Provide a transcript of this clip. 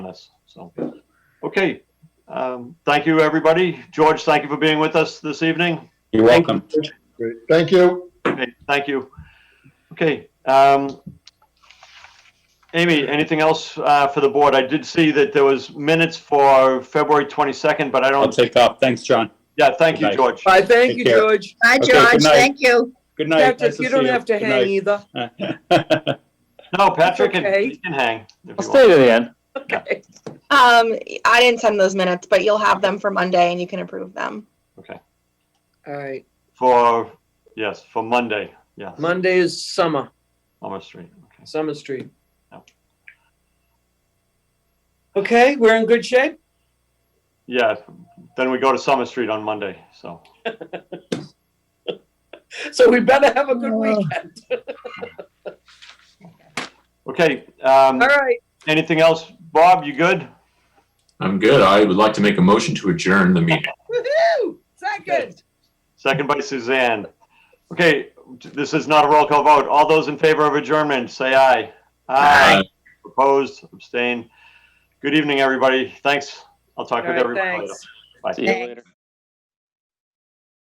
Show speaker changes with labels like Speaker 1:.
Speaker 1: us. So, okay. Um, thank you, everybody. George, thank you for being with us this evening.
Speaker 2: You're
Speaker 1: Thank
Speaker 2: welcome.
Speaker 3: Great. Thank you.
Speaker 1: Okay, thank you. Okay. Um, Amy, anything else uh, for the board? I did see that there was minutes for February 22nd, but I
Speaker 2: I'll
Speaker 1: don't.
Speaker 2: take off. Thanks, John.
Speaker 1: Yeah, thank you,
Speaker 2: Nice.
Speaker 1: George.
Speaker 4: All right, thank
Speaker 2: Take
Speaker 4: you,
Speaker 2: care.
Speaker 4: George.
Speaker 5: Hi,
Speaker 2: Okay,
Speaker 5: George.
Speaker 2: good night.
Speaker 5: Thank you.
Speaker 2: Good night.
Speaker 4: Patrick, you don't have to hang either.
Speaker 2: either.
Speaker 1: No, Patrick can,
Speaker 4: okay.
Speaker 1: he can hang. if
Speaker 6: I'll
Speaker 1: you want.
Speaker 6: stay to the end.
Speaker 4: Okay.
Speaker 5: Um, I didn't send those minutes, but you'll have them for Monday and you can approve them.
Speaker 4: All right,
Speaker 1: For, yes, for Monday. Yes,
Speaker 4: Monday is summer,
Speaker 1: Summer Street. Okay.
Speaker 4: Summer Street.
Speaker 1: Yep.
Speaker 4: Okay, we're in good shape?
Speaker 1: Yeah, then we go to Summer Street on Monday, so.
Speaker 4: So we better have a good weekend.
Speaker 1: Okay, um,
Speaker 4: All right,
Speaker 1: anything else? Bob, you good?
Speaker 7: I'm good. I would like to make a motion to adjourn the meeting.
Speaker 4: woo-hoo, second.
Speaker 1: Second by Suzanne. Okay, this is not a roll call vote. All those in favor of adjournment, say aye.
Speaker 7: Aye.
Speaker 1: Opposed, abstain. Good evening, everybody. Thanks. I'll talk
Speaker 4: All
Speaker 1: with
Speaker 4: right,
Speaker 1: everybody later.
Speaker 4: thanks.
Speaker 1: Bye.
Speaker 6: See you later.